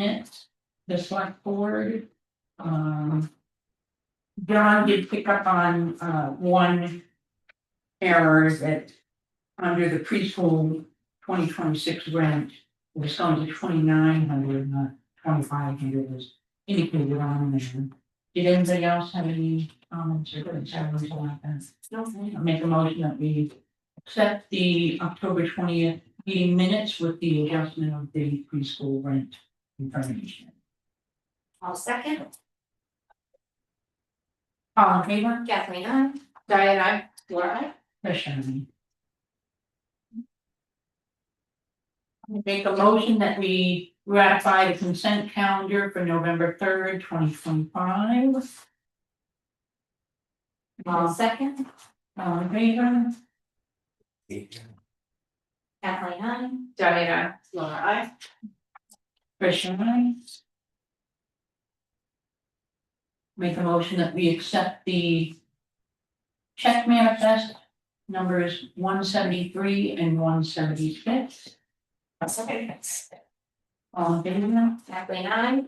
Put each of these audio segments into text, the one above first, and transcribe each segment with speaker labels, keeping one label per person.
Speaker 1: it, the select board, um. John did pick up on uh one error that under the preschool twenty twenty six grant was going to twenty nine hundred, not twenty five hundred was indicated on there. Did anybody else have any comments or concerns about that? No. I make a motion that we accept the October twentieth meeting minutes with the adjustment of the preschool rent information.
Speaker 2: I'll second,
Speaker 1: All in favor?
Speaker 2: Kathleen, I,
Speaker 3: Diane, I,
Speaker 2: Laura, I,
Speaker 1: Question. Make a motion that we ratify the consent calendar for November third, twenty twenty five.
Speaker 2: I'll
Speaker 1: All,
Speaker 2: second,
Speaker 1: all in favor?
Speaker 2: Kathleen, I,
Speaker 3: Diane, I.
Speaker 2: Laura, I,
Speaker 1: Question aye. Make a motion that we accept the check manifest numbers one seventy three and one seventy six.
Speaker 2: I'll second,
Speaker 1: All in favor?
Speaker 2: Kathleen, I,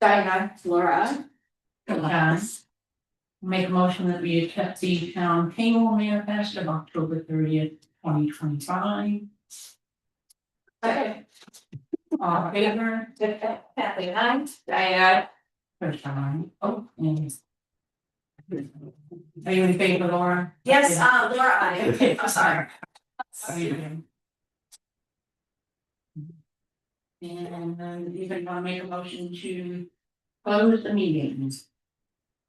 Speaker 3: Diane, I.
Speaker 2: Laura,
Speaker 1: Uh, Make a motion that we accept the town payroll manifest of October thirtieth, twenty twenty five.
Speaker 3: Second.
Speaker 1: All in favor,
Speaker 2: I, Kathleen, I,
Speaker 3: Diane,
Speaker 1: first time, oh, and. Are you in favor, Laura?
Speaker 2: yes, uh, Laura, I, I'm sorry.
Speaker 1: Are you in? And then you can now make a motion to close the meeting.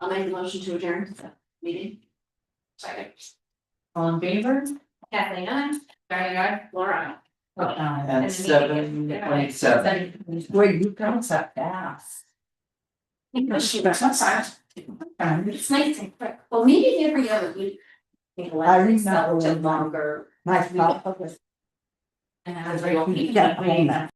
Speaker 2: I'll make a motion to adjourn the meeting.
Speaker 3: Second.
Speaker 1: All in favor?
Speaker 2: Kathleen, I,
Speaker 3: Diane, I.
Speaker 2: Laura, I.
Speaker 1: First time.
Speaker 2: And
Speaker 4: At
Speaker 2: the meeting
Speaker 4: seven
Speaker 2: is-
Speaker 4: point seven.
Speaker 1: Wait, you come up fast.
Speaker 2: It's nice and quick, well, maybe every other week. I remember longer. My. And I was like, okay,
Speaker 1: Yeah, I mean,
Speaker 2: that.